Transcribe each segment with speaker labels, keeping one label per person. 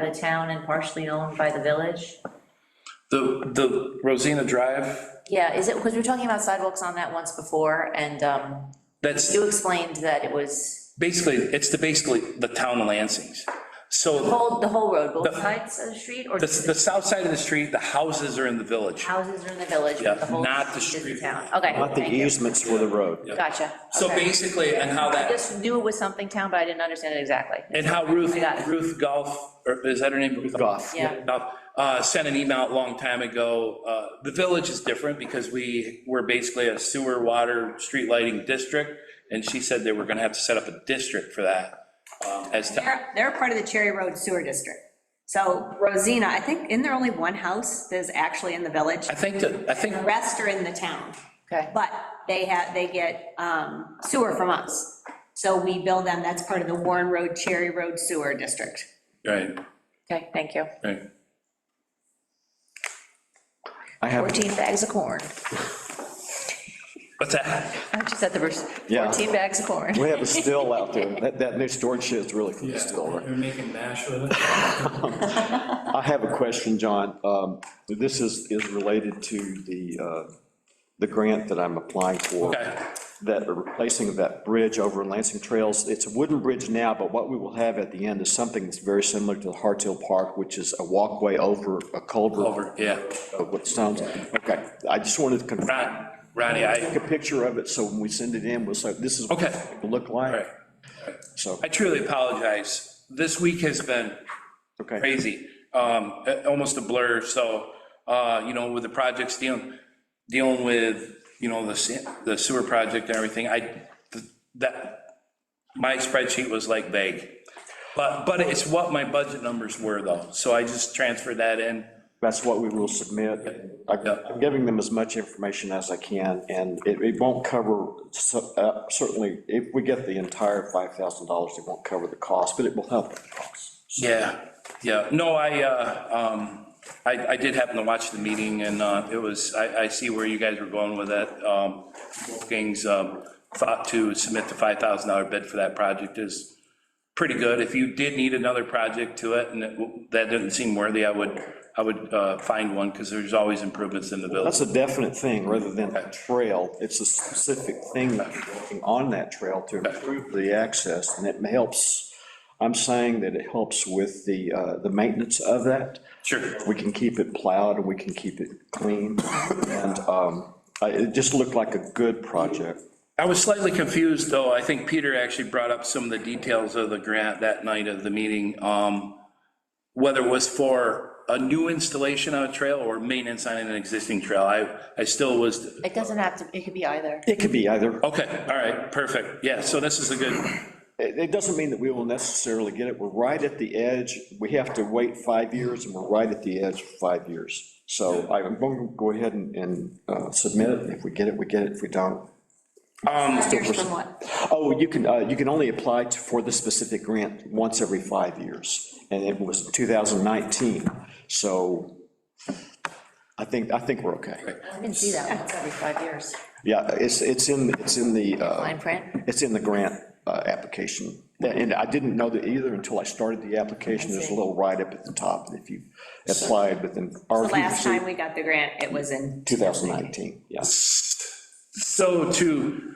Speaker 1: the town and partially owned by the village?
Speaker 2: The, the Rosina Drive,
Speaker 1: Yeah, is it, because we were talking about sidewalks on that once before, and um,
Speaker 2: that's
Speaker 1: you explained that it was
Speaker 2: basically, it's the, basically the town of Lansing's.
Speaker 1: the
Speaker 2: So
Speaker 1: whole, the whole road, both
Speaker 2: The-
Speaker 1: sides of the street, or
Speaker 2: the,
Speaker 1: just
Speaker 2: the
Speaker 1: the
Speaker 2: south side of the street, the houses are in the village.
Speaker 1: houses are in the village,
Speaker 2: Yeah,
Speaker 1: but the whole
Speaker 2: not the
Speaker 1: street is
Speaker 2: street.
Speaker 1: the town? Okay,
Speaker 3: Not the
Speaker 1: thank you.
Speaker 3: easements for the road.
Speaker 1: Gotcha.
Speaker 2: So
Speaker 1: okay.
Speaker 2: basically, and how
Speaker 1: I
Speaker 2: that,
Speaker 1: just knew it was something town, but I didn't understand it exactly.
Speaker 2: and how Ruth,
Speaker 1: I got it.
Speaker 2: Ruth Golf, or is that her name? Ruth
Speaker 3: Goff.
Speaker 1: Yeah.
Speaker 2: Goff, uh, sent an email a long time ago. Uh, The village is different because we were basically a sewer, water, street lighting district. And she said they were gonna have to set up a district for that. um, As, to-
Speaker 4: They're, they're part of the Cherry Road Sewer District. So Rosina, I think, isn't there only one house that's actually in the village?
Speaker 2: I think that, I think
Speaker 4: The rest are in the town,
Speaker 1: Okay,
Speaker 4: but they have, they get um, sewer from us. So we bill them, that's part of the Warren Road Cherry Road Sewer District.
Speaker 2: Right,
Speaker 1: okay, thank you.
Speaker 2: right.
Speaker 3: I have,
Speaker 1: 14 bags of corn.
Speaker 2: What's that?
Speaker 1: I just said the verse,
Speaker 3: Yeah.
Speaker 1: 14 bags of corn.
Speaker 3: we have a still out there. That, that new storage shed is really cool still. right?
Speaker 5: You're making mash with it?
Speaker 3: I have a question, John. Um, This is, is related to the, uh, the grant that I'm applying for.
Speaker 2: Okay.
Speaker 3: That replacing of that bridge over Lansing Trails. It's a wooden bridge now, but what we will have at the end is something that's very similar to the Harthill Park, which is a walkway over a culvert.
Speaker 2: Over, yeah.
Speaker 3: uh, What sounds, okay. I just wanted to confirm.
Speaker 2: Ron- Ronnie, I,
Speaker 3: Take a picture of it, so when we send it in, we'll say, this is what
Speaker 2: Okay.
Speaker 3: it will look
Speaker 2: all right.
Speaker 3: like. So,
Speaker 2: I truly apologize. This week has been
Speaker 3: okay.
Speaker 2: crazy, um, a- almost a blur, so, uh, you know, with the projects dealing, dealing with, you know, the se- the sewer project and everything, I, th- that, my spreadsheet was like vague. But, but it's what my budget numbers were though, so I just transferred that in.
Speaker 3: That's what we will submit. I-
Speaker 2: Yeah.
Speaker 3: I'm giving them as much information as I can, and it, it won't cover, so- uh, certainly, if we get the entire $5,000, it won't cover the cost, but it will help with the cost.
Speaker 2: Yeah, yeah, no, I, uh, um, I, I did happen to watch the meeting, and, uh, it was, I, I see where you guys were going with that. Um, Wolfgang's, um, thought to submit the five thousand dollar bid for that project is pretty good. If you did need another project to it, and it- that didn't seem worthy, I would, I would, uh, find one, because there's always improvements in the village.
Speaker 3: That's a definite thing, rather than a trail, it's a specific thing that you're working on that trail to improve the access, and it helps, I'm saying that it helps with the, uh, the maintenance of that.
Speaker 2: Sure.
Speaker 3: We can keep it plowed and we can keep it clean. And um, I- it just looked like a good project.
Speaker 2: I was slightly confused, though. I think Peter actually brought up some of the details of the grant that night of the meeting. um, Whether it was for a new installation on a trail or maintenance on an existing trail, I, I still was,
Speaker 1: It doesn't have to, it could be either.
Speaker 3: It could be either.
Speaker 2: okay, all right, perfect. Yeah, so this is a good,
Speaker 3: It it doesn't mean that we will necessarily get it. We're right at the edge. We have to wait five years and we're right at the edge for five years. So I'm going to go ahead and- and uh, submit it. If we get it, we get it. If we don't.
Speaker 4: Here's from what?
Speaker 3: Oh, you can, uh, you can only apply to- for the specific grant once every five years. And it was 2019. So I think, I think we're okay.
Speaker 1: I didn't see that once every five years.
Speaker 3: Yeah, it's, it's in, it's in the, uh,
Speaker 1: Fine print?
Speaker 3: it's in the grant uh, application. And I didn't know that either until I started the application. There's a little write-up at the top that if you applied within.
Speaker 4: The last time we got the grant, it was in
Speaker 3: 2019, yeah.
Speaker 2: so to,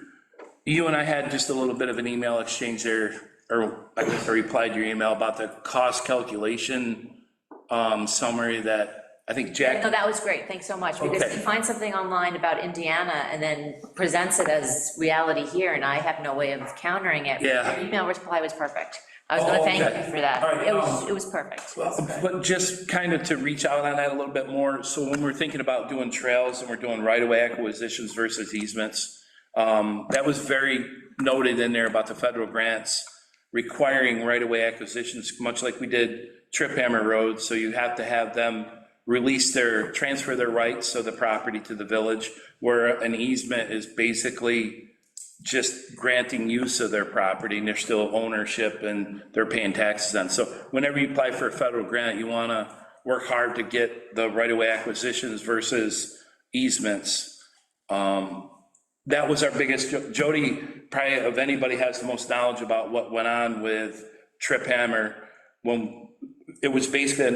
Speaker 2: you and I had just a little bit of an email exchange there, or I guess I replied to your email about the cost calculation um, summary that, I think Jack.
Speaker 1: No, that was great, thanks so much, because
Speaker 2: Okay.
Speaker 1: he finds something online about Indiana and then presents it as reality here, and I have no way of countering it.
Speaker 2: Yeah.
Speaker 1: Your email reply was perfect. I was
Speaker 2: Oh,
Speaker 1: gonna thank
Speaker 2: okay.
Speaker 1: you for
Speaker 2: All right,
Speaker 1: that. It was,
Speaker 2: um,
Speaker 1: it was perfect.
Speaker 2: But just kind of to reach out on that a little bit more, so when we're thinking about doing trails and we're doing right-of-way acquisitions versus easements, um, that was very noted in there about the federal grants requiring right-of-way acquisitions, much like we did Trip Hammer Road, so you have to have them release their, transfer their rights of the property to the village, where an easement is basically just granting use of their property, and they're still ownership, and they're paying taxes on. So whenever you apply for a federal grant, you want to work hard to get the right-of-way acquisitions versus easements. Um, That was our biggest, Jo- Jody, probably of anybody has the most knowledge about what went on with Trip Hammer when it was basically a